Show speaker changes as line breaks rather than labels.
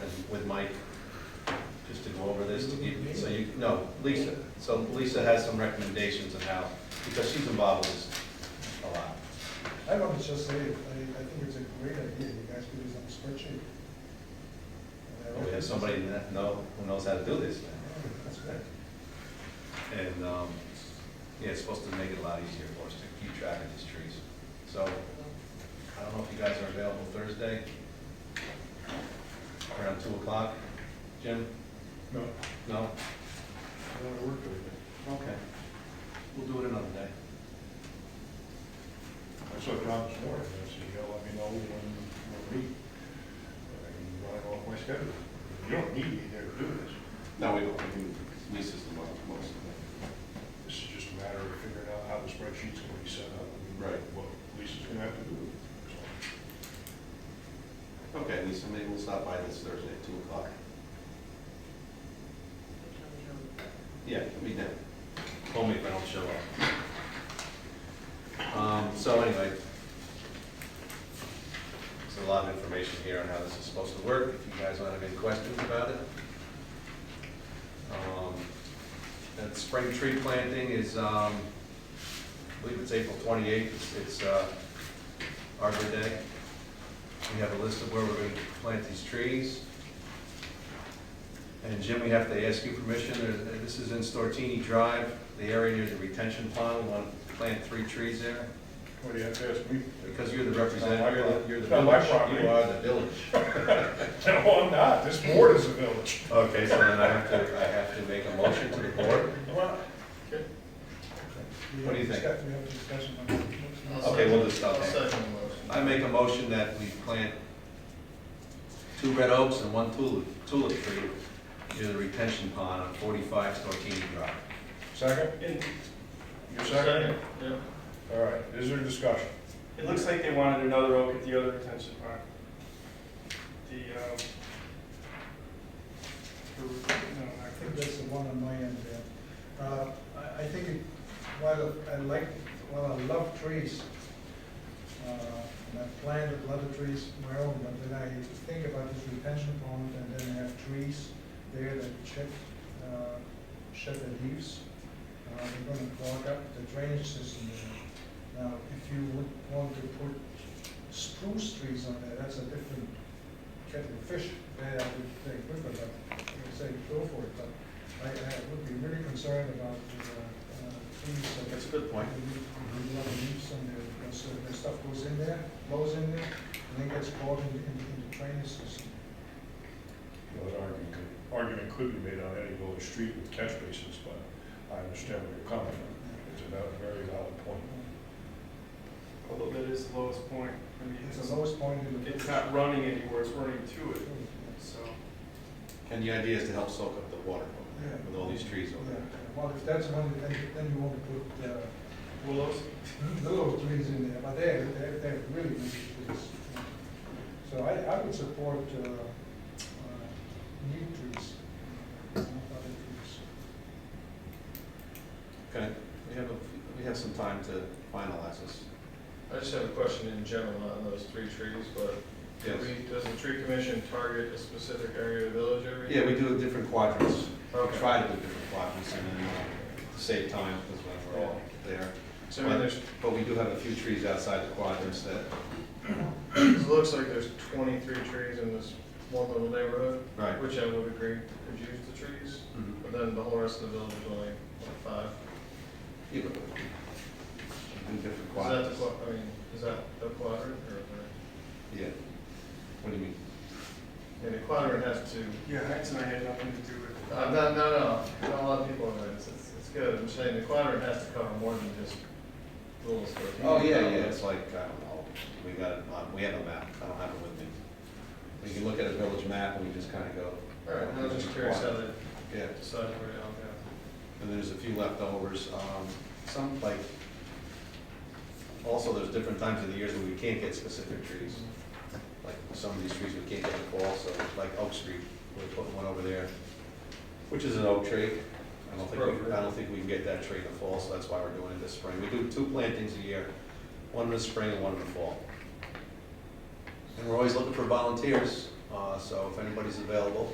Mike, just to go over this, to give, so you, no, Lisa. So Lisa has some recommendations on how, because she's involved with this a lot.
I don't know, it's just, I, I I think it's a great idea, you guys could use on the spreadsheet.
But Oh, We have somebody that know, who knows how to do this.
Oh,
That's good.
And, um, yeah, it's supposed to make it a lot easier for us to keep track of these trees. So, I don't know if you guys are available Thursday, around two o'clock. Jim?
No,
No?
I don't work with
Okay. We'll do it another day.
it. I saw Tom this morning, I said, you gotta let me know when, when we, I can run off my schedule. You don't need me there to do this,
No, we don't, I mean, Lisa's the one most of
this is just a matter of figuring out how the spreadsheet's gonna be set up. and
Right.
What Lisa's gonna have to do. So,
it. Okay, Lisa, maybe we'll stop by this Thursday at two o'clock. Yeah, we did.
Call me if I don't show up. Um, so anyway, there's a lot of information here on how this is supposed to work, if you guys want to have any questions about it. Um, That spring tree planting is, um, I believe it's April twenty-eighth, It's- it's, uh, Arbor Day. We have a list of where we're going to plant these trees. And Jim, we have to ask you permission, There- this is in Stortini Drive, the area near the retention pond, we want to plant three trees there,
What do you have to ask me?
because you're the representative, you're the- you're the
It's not my
village,
property.
you are the village.
No, I'm not, this board is a village.
Okay, so then I have to, I have to make a motion to the board? What do you think? Okay, we'll just stop there. I make a motion that we plant two red oaks and one tulip, tulip tree near the retention pond on forty-five Stortini Drive.
Second? You second?
Yeah.
All right, is there discussion?
It looks like they wanted another oak at the other retention pond. The, um, the, no,
I
not
think
the-
that's the one on my end, yeah. Uh, I, I think, it- while I like, while I love trees, uh, and I planted a lot of trees of my own, but then I think about this retention pond, and then I have trees there that shed, uh, shed their leaves. Uh, They're gonna clog up the drainage system there. Now, if you would want to put spruce trees on there, that's a different kettle of fish. There, I would say, good, but I would say go for it, but I, I would be really concerned about the, uh, uh, trees. that-
That's a good point.
A lot of leaves on there, because uh, the stuff goes in there, blows in there, and then gets caught in, in in the drainage system.
Well, an argument could- Argument could be made on any village street with catch basins, but I understand where you're coming from. It's a val- very valid point.
although that is the lowest point. I mean,
It's
it's,
the lowest point in the. Oh,
it's not running anywhere, it's running to it,
Yeah.
so.
And the idea is to help soak up the water from there, with all these trees over
Yeah,
there.
well, if that's one, then, then you want to put, uh,
Willows,
little trees in there, but they're, they're, they're really big trees. So I, I would support, uh, uh, new trees, not other trees.
Okay, we have, a we have some time to finalize this.
I just have a question in general on those three trees, but do
Yes.
we, does the tree commission target a specific area of the village every
Yeah,
year?
we do different quadrants, we
Okay.
try to do different quadrants and then uh, save time, because when we're all there.
So I mean, there's,
But we do have a few trees outside the quadrants that,
it looks like there's twenty-three trees in this one little neighborhood,
right.
which I would agree could use the trees,
Mhm.
but then the whole rest of the village is only like five.
Yeah, but we do different
Is that the,
quadrants.
qua- I mean, is that the quadrant or, or-
Yeah. What do you mean?
yeah, the quadrant has two.
yeah, that's, and I had nothing to do with it.
Uh, no, no, no, not a lot of people in there, it's, it's, it's good, I'm saying the quadrant has to cover more than just little square. feet.
Oh, yeah, yeah, it's like, I don't know, we got, it on- we have a map, I don't have it with me. We can look at a village map and we just kind of go.
All right, I was just curious how they
Yeah,
decided where to allocate.
and there's a few leftovers, um, some like, also there's different times of the years where we can't get specific trees. Like some of these trees we can't get the fall, so like Oak Street, we're putting one over there, which is an oak tree. I don't think, we- I don't think we can get that tree in the fall, so that's why we're doing it this spring. We do two plantings a year, one in the spring and one in the fall. And we're always looking for volunteers, uh, so if anybody's available,